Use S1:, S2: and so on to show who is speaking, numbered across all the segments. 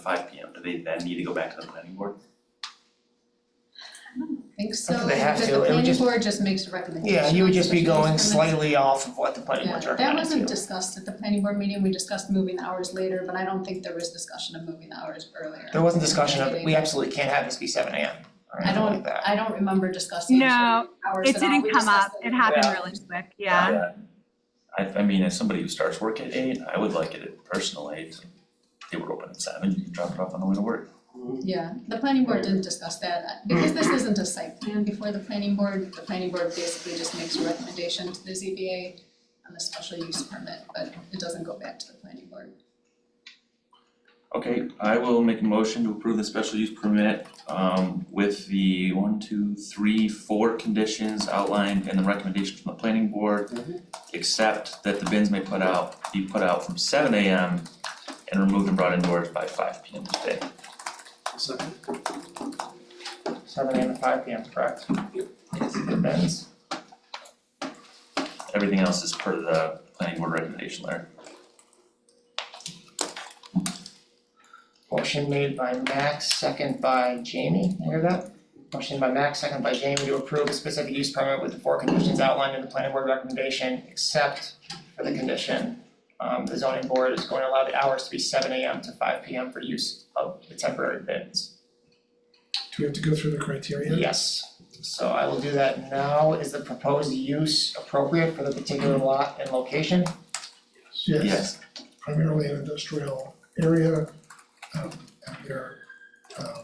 S1: five P M, do they then need to go back to the planning board?
S2: think so,
S3: They have
S2: because
S3: to,
S2: the
S3: it would
S2: planning
S3: just-
S2: board just makes a recommendation.
S3: Yeah, you would just be
S2: Special use
S3: going
S2: permit.
S3: slightly off of what the planning board's
S2: Yeah, that
S3: recommending
S2: wasn't
S3: to you.
S2: discussed at the planning board meeting, we discussed moving the hours later, but I don't think there was discussion of moving the hours earlier.
S3: There wasn't discussion of,
S2: Maybe.
S3: we absolutely can't have this be seven AM or anything like that.
S2: I don't remember discussing
S4: No,
S2: hours at all.
S4: It didn't
S2: We
S4: come up,
S2: discussed
S4: it happened
S3: Yeah.
S4: really quick, yeah.
S1: I Uh, I mean, as somebody who starts work at eight, I would like it at personal eight, they were open at seven, you can drop it off on the way to work.
S2: Yeah, the planning board didn't discuss that, Uh, because this isn't a site plan before the planning board, the planning board basically just makes a recommendation to the ZBA on the special use permit, but it doesn't go back to the planning board.
S1: Okay, I will make a motion to approve the special use permit um with the one, two, three, four conditions outlined in the recommendation from the planning board. Except that the bins may put out, be put out from seven AM and removed and brought indoors by five PM today.
S5: Second.
S3: Seven AM to five PM, correct?
S5: Yep.
S3: Depends.
S1: Everything else is per the planning board recommendation, Larry.
S3: Motion made by Max, second by Jamie, You hear that? Motion by Max, second by Jamie to approve a specific use permit with the four conditions outlined in the planning board recommendation, except for the condition, um, the zoning board is going to allow the hours to be seven AM to five PM for use of the temporary bins.
S5: Do we have to go through the criteria?
S3: Yes, so I will do that now, is the proposed use appropriate for the particular lot and location?
S5: Yes, primarily an industrial area, um, and they're, um,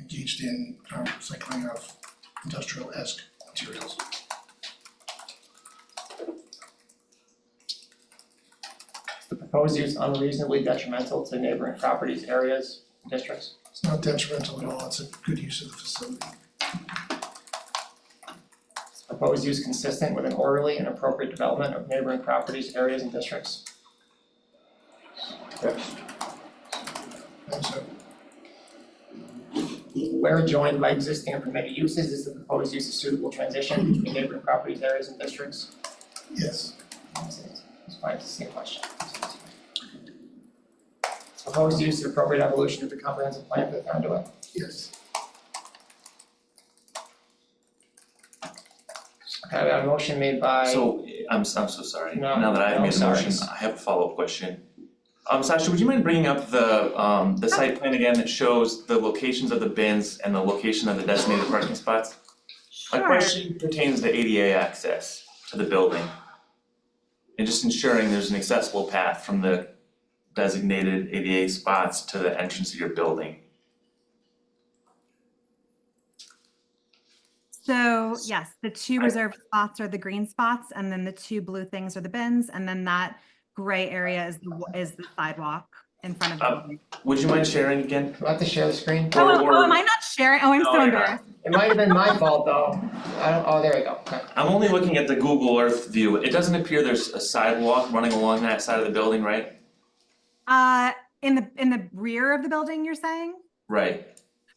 S5: engaged in, um, recycling of industrial-esque materials.
S3: Is the proposed use unreasonably detrimental to neighboring properties, areas, districts?
S5: It's not detrimental at all, it's a good use of the facility.
S3: Is Proposed use consistent with an orderly and appropriate development of neighboring properties, areas, and districts.
S5: And so,
S3: Where joined by existing and permitted uses, is the proposed use a suitable transition between neighboring properties, areas, and districts?
S5: yes,
S3: It's fine, it's the same question. Is Proposed use the appropriate evolution of the comprehensive plan for the conduit.
S5: yes,
S3: Okay, I have a motion made by.
S1: So, eh, I'm s- I'm so sorry,
S3: No,
S1: now that I've
S3: no,
S1: made the
S3: sorry.
S1: motion, I have a follow-up question. Um Sasha, would you mind bringing up the um the site plan again that shows the locations of the bins and the location of the designated parking spots? My
S4: Sure,
S1: question pertains to ADA access to the building. And just ensuring there's an accessible path from the designated ADA spots to the entrance of your building.
S4: so yes, the two reserved spots are the green spots and then the two blue things are the bins. And then that gray area is, the wa- is the sidewalk in front of the
S1: Um,
S4: building.
S1: Would you mind sharing again?
S3: Do I have to share the screen?
S1: or-
S4: Oh, oh,
S1: or-
S4: am I not sharing? Oh, I'm
S1: No,
S4: so
S1: you're not.
S4: embarrassed.
S3: It might have been my fault though. I don't, oh, there we go, okay.
S1: I'm only looking at the Google Earth view, it doesn't appear there's a sidewalk running along that side of the building, right?
S4: Uh, in the, in the rear of the building, you're saying?
S1: Right,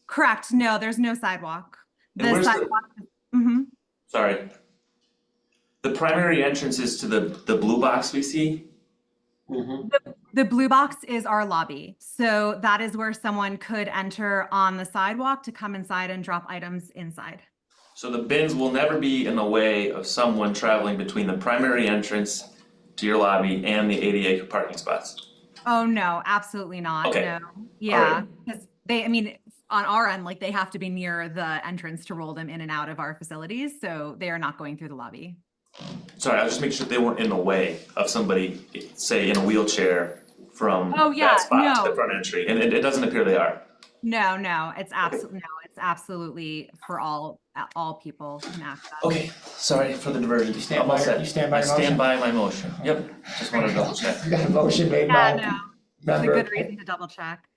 S4: Correct, no, there's no sidewalk.
S1: And
S4: The
S1: where's the-
S4: sidewalk, hmm
S1: Sorry. The primary entrance is to the, the blue box we see?
S4: The blue box is our lobby. So that is where someone could enter on the sidewalk to come inside and drop items inside.
S1: So the bins will never be in the way of someone traveling between the primary entrance to your lobby and the ADA parking spots.
S4: Oh, no, absolutely not.
S1: Okay.
S4: No. Yeah. Because they, I mean, on our end, like they have to be near the entrance to roll them in and out of our facilities. So they are not going through the lobby.
S1: Sorry, I was just making sure they weren't in the way of somebody, say, in a wheelchair from
S4: Oh, yeah,
S1: that spot to the
S4: no.
S1: front entry, and it, it doesn't appear they are.
S4: No, no, it's absolutely, no, it's absolutely for all, all people can access.
S1: Okay, sorry for the diversion.
S3: You stand
S1: I'm all
S3: by your-
S1: set.
S3: you stand by your
S1: I stand by my motion. Yep, just wanted to double check.
S3: We got a motion made by
S4: Yeah, no, it's a
S3: member.
S4: good reason to double check.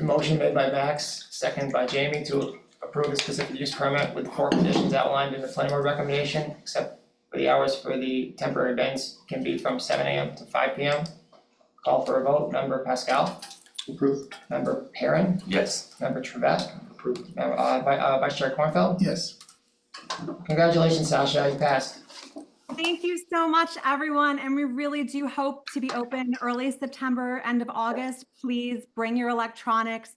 S3: Motion made by Max, second by Jamie to approve a specific use permit with four conditions outlined in the planning board recommendation, except for the hours for the temporary events can be from seven AM to five PM. Call for a vote, member Pascal,
S5: approved,
S3: member Perrin,
S1: Yes,
S3: member Trevette,
S5: approved,
S3: member, uh, Vi- uh, Vice Chair Cornfeld.
S5: yes,
S3: Congratulations, Sasha, you passed.
S4: Thank you so much, everyone, and we really do hope to be open early September, end of August. Please bring your electronics,